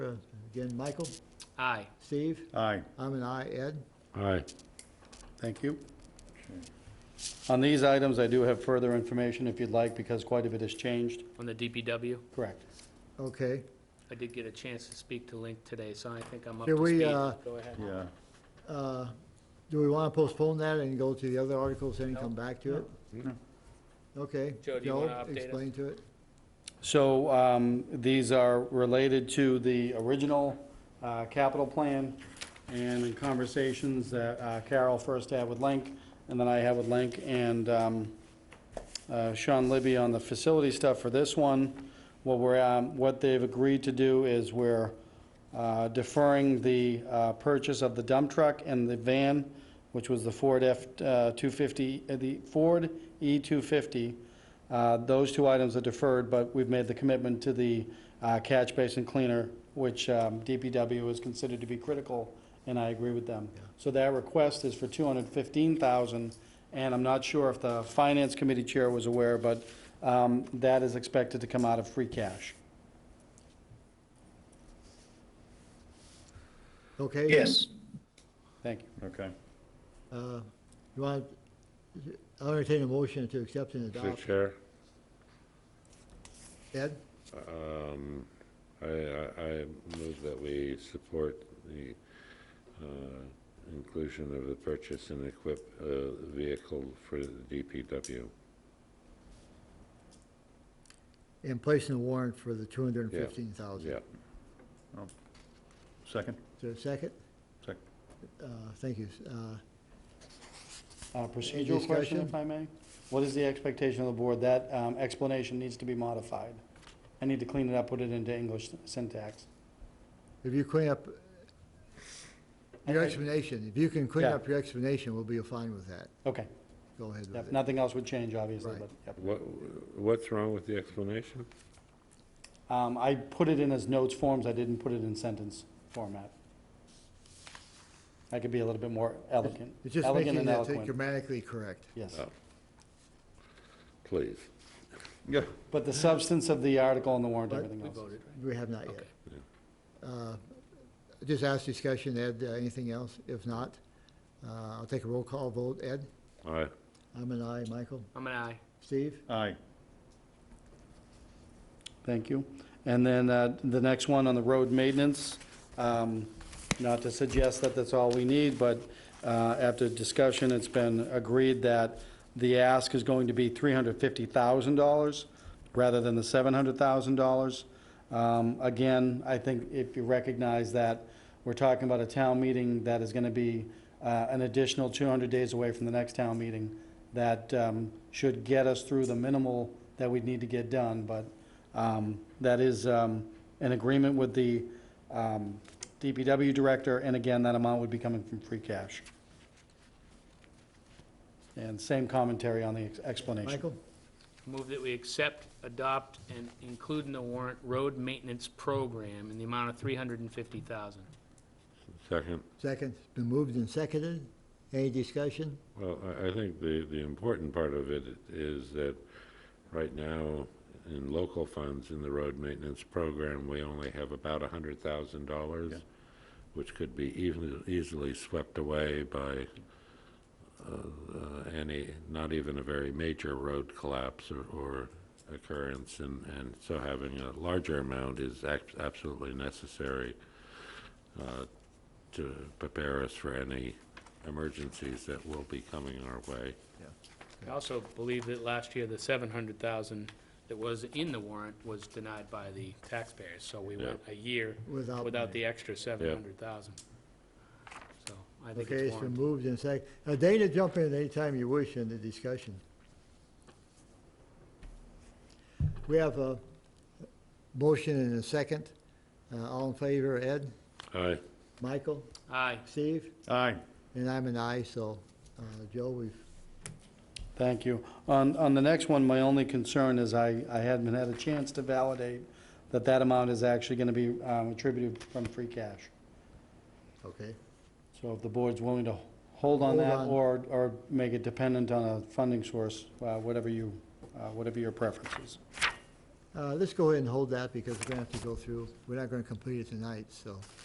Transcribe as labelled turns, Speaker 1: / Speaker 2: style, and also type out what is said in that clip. Speaker 1: Again, Michael,
Speaker 2: Aye.
Speaker 1: Steve,
Speaker 3: Aye.
Speaker 1: I'm an aye, Ed.
Speaker 4: Aye.
Speaker 3: Thank you. On these items, I do have further information if you'd like, because quite a bit has changed.
Speaker 2: On the DPW,
Speaker 3: Correct.
Speaker 1: Okay.
Speaker 2: I did get a chance to speak to Link today, so I think I'm up
Speaker 1: Can
Speaker 2: to
Speaker 1: we,
Speaker 2: speed.
Speaker 1: uh,
Speaker 2: Go ahead.
Speaker 3: Yeah.
Speaker 1: Uh, Do we want to postpone that and go to the other articles and come back to it? Okay.
Speaker 2: Joe, do you
Speaker 1: Joe,
Speaker 2: wanna update us?
Speaker 1: Explain to it.
Speaker 3: So um, these are related to the original uh, capital plan and in conversations that uh, Carol first had with Link, and then I had with Link, and um, uh, Sean Libby on the facility stuff for this one. What we're, um, what they've agreed to do is we're uh, deferring the uh, purchase of the dump truck and the van, which was the Ford uh, F-250, the Ford E E-250. Uh, Those two items are deferred, but we've made the commitment to the uh, catch basin cleaner, which um, DPW is considered to be critical, and I agree with them. So that request is for 215,000, and I'm not sure if the Finance Committee Chair was aware, but um, that is expected to come out of free cash.
Speaker 1: Okay?
Speaker 5: Yes,
Speaker 3: Thank you.
Speaker 4: Okay.
Speaker 1: Uh, You want, I'll entertain a motion to accept and
Speaker 4: Mr.
Speaker 1: adopt.
Speaker 4: Chair,
Speaker 1: Ed,
Speaker 4: um, I, I, I move that we support the, uh, inclusion of the purchase and equip, uh, vehicle for the DPW.
Speaker 1: and place in the warrant for the two hundred and fifteen thousand.
Speaker 4: Yeah.
Speaker 3: Second.
Speaker 1: Is there a second?
Speaker 3: Second.
Speaker 1: Uh, Thank you. Uh,
Speaker 3: Procedural question,
Speaker 1: discussion?
Speaker 3: if I may? What is the expectation of the board? That um, explanation needs to be modified. I need to clean it up, put it into English syntax.
Speaker 1: If you clean up your
Speaker 3: Okay.
Speaker 1: explanation, if you can clean
Speaker 3: Yeah.
Speaker 1: up your explanation, we'll be fine with that.
Speaker 3: Okay,
Speaker 1: Go ahead
Speaker 3: Yep,
Speaker 1: with it.
Speaker 3: nothing else would change, obviously,
Speaker 1: Right.
Speaker 3: but, yep.
Speaker 4: What, what's wrong with the explanation?
Speaker 3: Um, I put it in as notes forms, I didn't put it in sentence format. I could be a little bit more elegant,
Speaker 1: It's just
Speaker 3: elegant
Speaker 1: making
Speaker 3: and
Speaker 1: it
Speaker 3: eloquent,
Speaker 1: grammatically correct.
Speaker 3: yes.
Speaker 4: Oh. Please.
Speaker 3: But the substance of the article and the warrant,
Speaker 1: But
Speaker 3: everything
Speaker 2: We
Speaker 3: else.
Speaker 2: voted,
Speaker 1: We have not yet. Uh, Just ask discussion, Ed, uh, anything else? If not, uh, I'll take a roll call vote. Ed?
Speaker 4: Aye.
Speaker 1: I'm an aye. Michael?
Speaker 2: I'm an aye.
Speaker 1: Steve?
Speaker 3: Aye. Thank you. And then uh, the next one on the road maintenance, um, not to suggest that that's all we need, but uh, after discussion, it's been agreed that the ask is going to be $350,000 rather than the $700,000. Um, Again, I think if you recognize that we're talking about a town meeting that is going to be uh, an additional 200 days away from the next town meeting, that um, should get us through the minimal that we'd need to get done, but um, that is um, an agreement with the um, DPW director, and again, that amount would be coming from free cash. And same commentary on the ex- explanation.
Speaker 1: Michael?
Speaker 2: Move that we accept, adopt, and include in the warrant road maintenance program in the amount of three hundred and fifty thousand.
Speaker 4: Second.
Speaker 1: Second. It's been moved and seconded. Any discussion?
Speaker 4: Well, I, I think the, the important part of it is that right now, in local funds, in the road maintenance program, we only have about a hundred thousand dollars, which could be even, easily swept away by, uh, uh, any, not even a very major road collapse or, or occurrence, and, and so having a larger amount is ac- absolutely necessary, uh, to prepare us for any emergencies that will be coming our way.
Speaker 2: I also believe that last year, the seven hundred thousand that was in the warrant was denied by the taxpayers, so we
Speaker 4: Yeah.
Speaker 2: went a year
Speaker 1: Without
Speaker 2: without
Speaker 1: money.
Speaker 2: the extra seven hundred thousand. So I think
Speaker 1: Okay,
Speaker 2: it's
Speaker 1: it's been
Speaker 2: warranted.
Speaker 1: moved and seconded. Now, Dana, jump in at any time you wish in the discussion. We have a motion and a second. Uh, All in favor, Ed?
Speaker 4: Aye.
Speaker 1: Michael?
Speaker 2: Aye.
Speaker 1: Steve?
Speaker 3: Aye.
Speaker 1: And I'm an aye, so, uh, Joe, we've
Speaker 3: Thank you. On, on the next one, my only concern is I, I hadn't had a chance to validate that that amount is actually going to be um, attributed from free cash.
Speaker 1: Okay,
Speaker 3: So if the board's willing to hold
Speaker 1: Hold
Speaker 3: on that
Speaker 1: on.
Speaker 3: or, or make it dependent on a funding source, uh, whatever you, uh, whatever your preference is.
Speaker 1: Uh, Let's go ahead and hold that because we're going to have to go through, we're not going to complete it tonight, so.